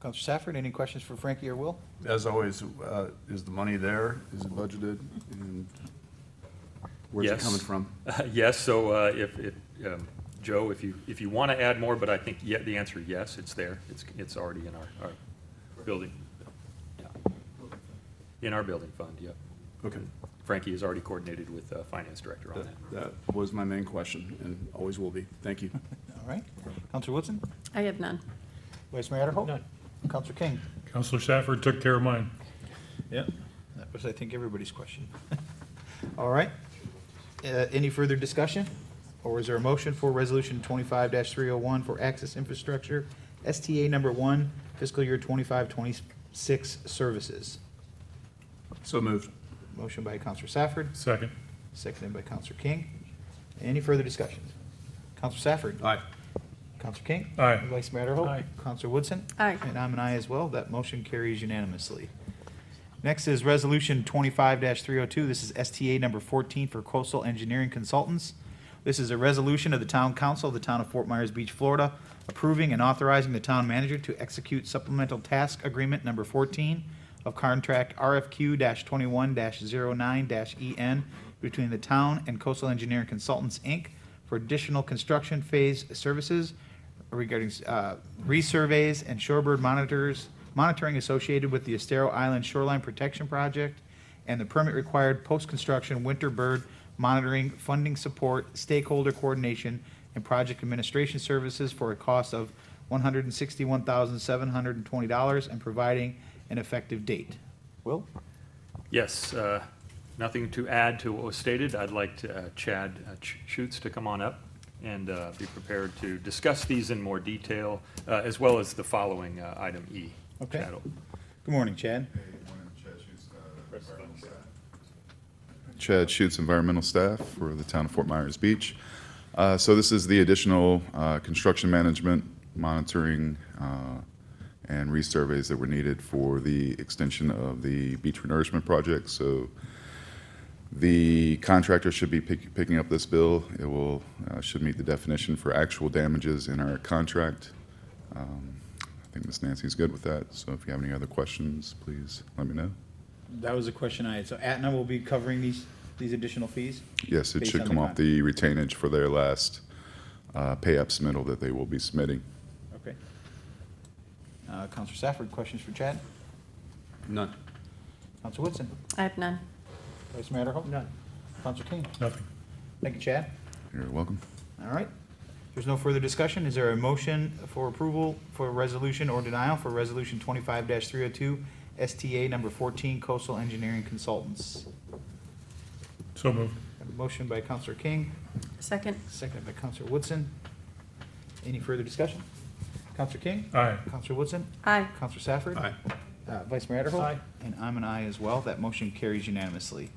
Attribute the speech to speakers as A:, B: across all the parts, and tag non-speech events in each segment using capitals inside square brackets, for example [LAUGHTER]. A: Counselor Safford, any questions for Frankie or Will?
B: As always, uh, is the money there? Is it budgeted? And Where's it
C: Yes.
B: coming from?
C: Yes, so uh, if, if, um, Joe, if you, if you want to add more, but I think ye- the answer, is yes, it's there. It's, it's already in our, our building. Yeah. In our building fund, yeah.
B: Okay,
C: Frankie has already coordinated with uh, Finance Director on that.
B: that- that was my main question and always will be. Thank you.
A: All right. Counselor Woodson?
D: I have none.
A: Vice Mayor Adderhope? None. Counselor King?
E: Counselor Safford took care of mine.
A: Yeah. That was, I think, everybody's question. [LAUGHS] All right. Uh, Any further discussion? Or is there a motion for Resolution 25-301 for access infrastructure, STA number one, fiscal year 2526 services?
B: So moved.
A: Motion by Counselor Safford,
E: Second.
A: seconded by Counselor King. Any further discussion? Counselor Safford?
B: Aye.
A: Counselor King?
E: Aye.
A: Vice Mayor Adderhope?
E: Aye.
A: Counselor Woodson?
D: Aye.
A: And I'm an aye as well. That motion carries unanimously. Next is Resolution 25-302. This is STA number 14 for Coastal Engineering Consultants. This is a resolution of the Town Council of the Town of Fort Myers Beach, Florida, approving and authorizing the town manager to execute supplemental task agreement number 14 of contract RFQ-21-09-EN E between the town and Coastal Engineering Consultants, Inc. for additional construction phase services regarding uh, resurveys and shorebird monitors, monitoring associated with the Estero Island Shoreline Protection Project, and the permit required post-construction winter bird monitoring, funding support, stakeholder coordination, and project administration services for a cost of $161,720 and providing an effective date. Will?
C: Yes, uh, nothing to add to what was stated. I'd like to, uh, Chad uh, Ch- Schutz to come on up and uh, be prepared to discuss these in more detail, uh, as well as the following uh, item E.
A: Okay.
C: Chad will-
A: Good morning, Chad.
F: Chad Schutz, environmental staff for the town of Fort Myers Beach. Uh, So this is the additional uh, construction management, monitoring, uh, and resurveys that were needed for the extension of the beach renourishment project. So the contractor should be pick- picking up this bill. It will, uh, should meet the definition for actual damages in our contract. Um, I think Ms. Nancy's good with that, so if you have any other questions, please let me know.
A: That was a question I had. So Aetna will be covering these, these additional fees?
F: Yes, it
A: based
F: should
A: on
F: come off
A: con-
F: the retainage for their last uh, pay up submittal that they will be submitting.
A: Okay. Uh, Counselor Safford, questions for Chad?
B: None.
A: Counselor Woodson?
D: I have none.
A: Vice Mayor Adderhope? None. Counselor King?
E: Nothing.
A: Thank you, Chad.
F: You're welcome.
A: All right. There's no further discussion. Is there a motion for approval for resolution or denial for Resolution 25-302, STA number 14, Coastal Engineering Consultants?
E: So moved.
A: A Motion by Counselor King,
D: Second,
A: seconded by Counselor Woodson. Any further discussion? Counselor King?
E: Aye.
A: Counselor Woodson?
D: aye.
A: Counselor Safford?
B: Aye.
A: Uh, Vice Mayor Adderhold?
E: Aye.
A: And I'm an aye as well. That motion carries unanimously.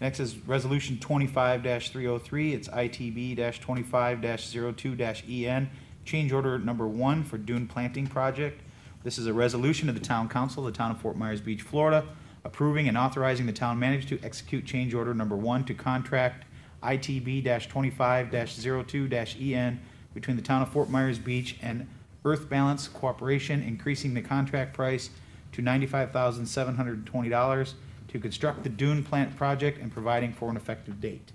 A: Next is Resolution twenty-five three oh three. It's ITB twenty-five 2 EN, E change order number one for dune planting project. This is a resolution of the Town Council of the Town of Fort Myers Beach, Florida, approving and authorizing the town manager to execute change order number one to contract ITB twenty-five 2 EN E between the Town of Fort Myers Beach and Earth Balance Corporation, increasing the contract price to ninety-five thousand seven hundred and twenty dollars to construct the dune plant project and providing for an effective date.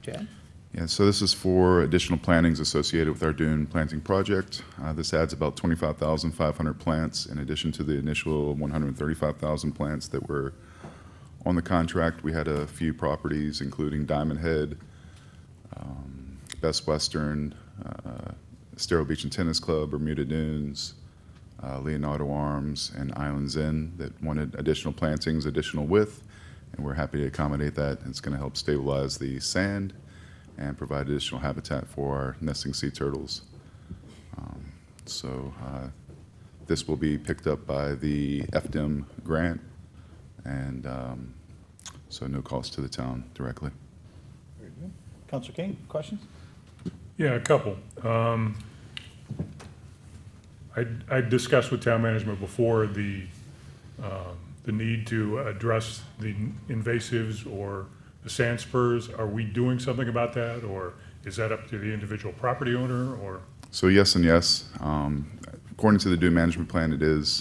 A: Chad?
F: Yeah, so this is for additional plantings associated with our dune planting project. Uh, This adds about 25,500 plants in addition to the initial 135,000 plants that were on the contract. We had a few properties, including Diamond Head, um, Best Western, uh, Estero Beach and Tennis Club, Bermuda Dunes, uh, Leonardo Arms, and Islands Inn that wanted additional plantings, additional width, and we're happy to accommodate that. It's going to help stabilize the sand and provide additional habitat for our nesting sea turtles. Um, So uh, this will be picked up by the FDM grant, and um, so no cost to the town directly.
A: Counselor King, questions?
E: Yeah, a couple. Um, I, I discussed with town management before the, um, the need to address the invasives or the sand spurs. Are we doing something about that, or is that up to the individual property owner, or?
F: So yes and yes. Um, According to the dune management plan, it is